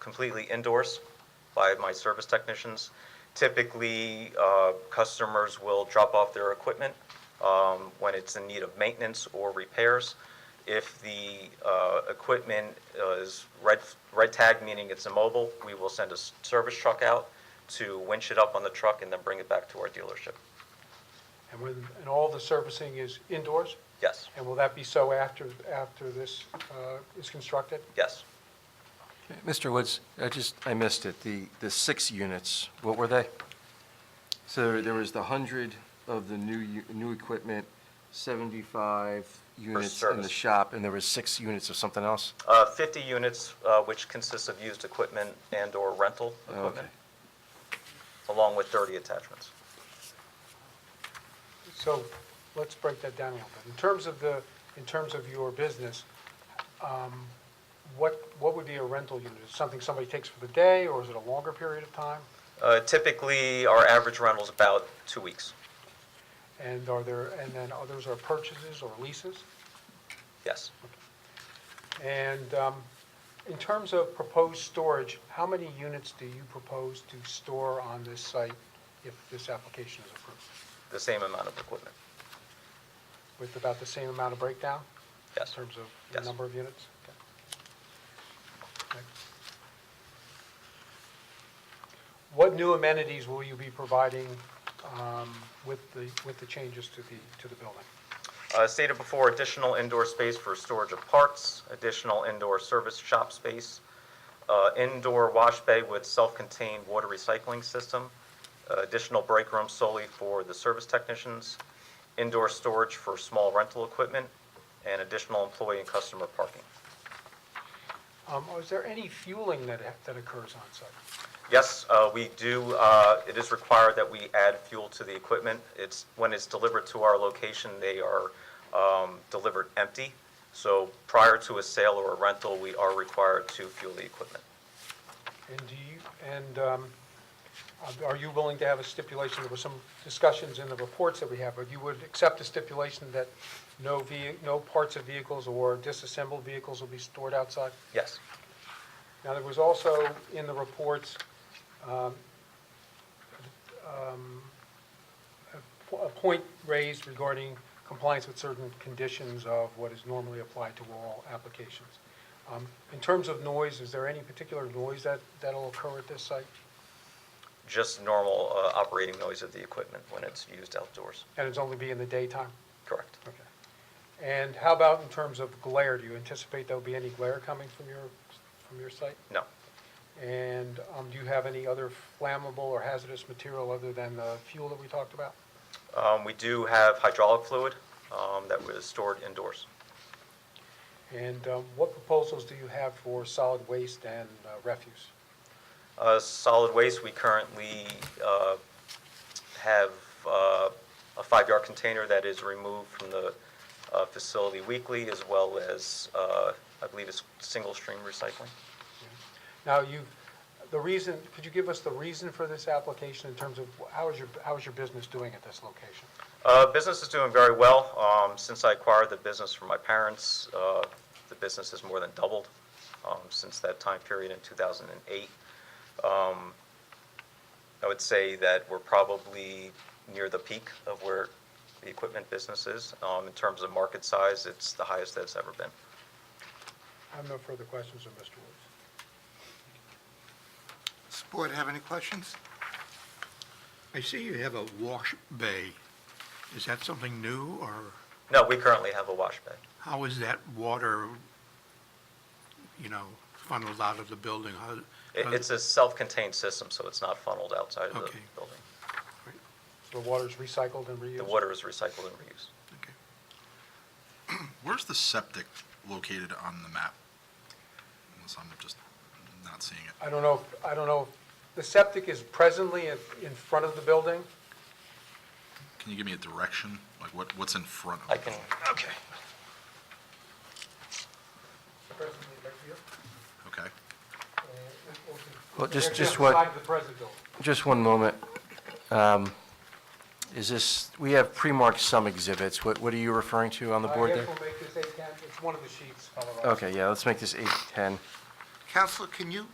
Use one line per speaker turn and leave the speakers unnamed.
completely indoors by my service technicians. Typically, uh, customers will drop off their equipment um, when it's in need of maintenance or repairs. If the uh, equipment uh, is red, red tagged, meaning it's immobile, we will send a s- service truck out to winch it up on the truck and then bring it back to our dealership.
And when, and all the servicing is indoors?
Yes,
And will that be so after, after this uh, is constructed?
yes.
Mr. Woods, I just, I missed it. The, the six units, what were they? So there was the 100 of the new, u- new equipment, 75 units in the
service.
shop, and there was six units of something else?
Uh, 50 units, uh, which consists of used equipment and/or rental
Oh, okay.
equipment, along with dirty attachments.
So let's break that down a little bit. In terms of the, in terms of your business, um, what, what would be a rental unit? Is it something somebody takes for the day, or is it a longer period of time?
Uh, Typically, our average rental is about two weeks.
And are there, and then others are purchases or leases?
Yes.
And um, in terms of proposed storage, how many units do you propose to store on this site if this application is approved?
The same amount of equipment.
With about the same amount of breakdown?
Yes.
In terms of
Yes.
the number of units? Okay. What new amenities will you be providing um, with the, with the changes to the, to the building?
Uh, Stated before, additional indoor space for storage of parts, additional indoor service shop space, uh, indoor wash bay with self-contained water recycling system, uh, additional break room solely for the service technicians, indoor storage for small rental equipment, and additional employee and customer parking.
Um, or Is there any fueling that, that occurs on site?
Yes, uh, we do, uh, it is required that we add fuel to the equipment. It's, when it's delivered to our location, they are um, delivered empty. So prior to a sale or a rental, we are required to fuel the equipment.
And do you, and um, are you willing to have a stipulation, there were some discussions in the reports that we have, but you would accept a stipulation that no ve, no parts of vehicles or disassembled vehicles will be stored outside?
Yes,
Now, there was also in the reports, um, um, a po- a point raised regarding compliance with certain conditions of what is normally applied to all applications. Um, In terms of noise, is there any particular noise that, that'll occur at this site?
just normal uh, operating noise of the equipment when it's used outdoors.
And it's only be in the daytime?
Correct.
Okay. And how about in terms of glare? Do you anticipate there'll be any glare coming from your, from your site?
No,
And um, do you have any other flammable or hazardous material other than the fuel that we talked about?
Um, we do have hydraulic fluid um, that was stored indoors.
And um, what proposals do you have for solid waste and uh, refuse?
Uh, Solid waste, we currently uh, have uh, a five-yard container that is removed from the uh, facility weekly, as well as, uh, I believe it's single-stream recycling.
Now, you, the reason, could you give us the reason for this application in terms of how is your, how is your business doing at this location?
Uh, Business is doing very well. Um, Since I acquired the business from my parents, uh, the business has more than doubled um, since that time period in 2008. Um, I would say that we're probably near the peak of where the equipment business is. Um, In terms of market size, it's the highest that it's ever been.
I have no further questions of Mr. Woods.
Does the board have any questions? I see you have a wash bay. Is that something new, or
No, we currently have a wash bay.
how is that water, you know, funneled out of the building? How-
It- It's a self-contained system, so it's not funneled outside of the
Okay.
building.
The water's recycled and reused?
The water is recycled and reused.
Okay.
Where's the septic located on the map? Unless I'm just not seeing it.
I don't know, if- I don't know, if- the septic is presently in in front of the building?
Can you give me a direction? Like what, what's in front of
I
it?
can,
Okay.
Presently right here? Uh,
Okay.
Well,
Actually,
just, just
on the side
what,
of the present building.
just one moment. Um, Is this, we have pre-marked some exhibits. What, what are you referring to on the
I
board
guess
there?
we'll make this eight ten, it's one of the sheets, Colorado.
Okay, yeah, let's make this 810.
Counselor, can you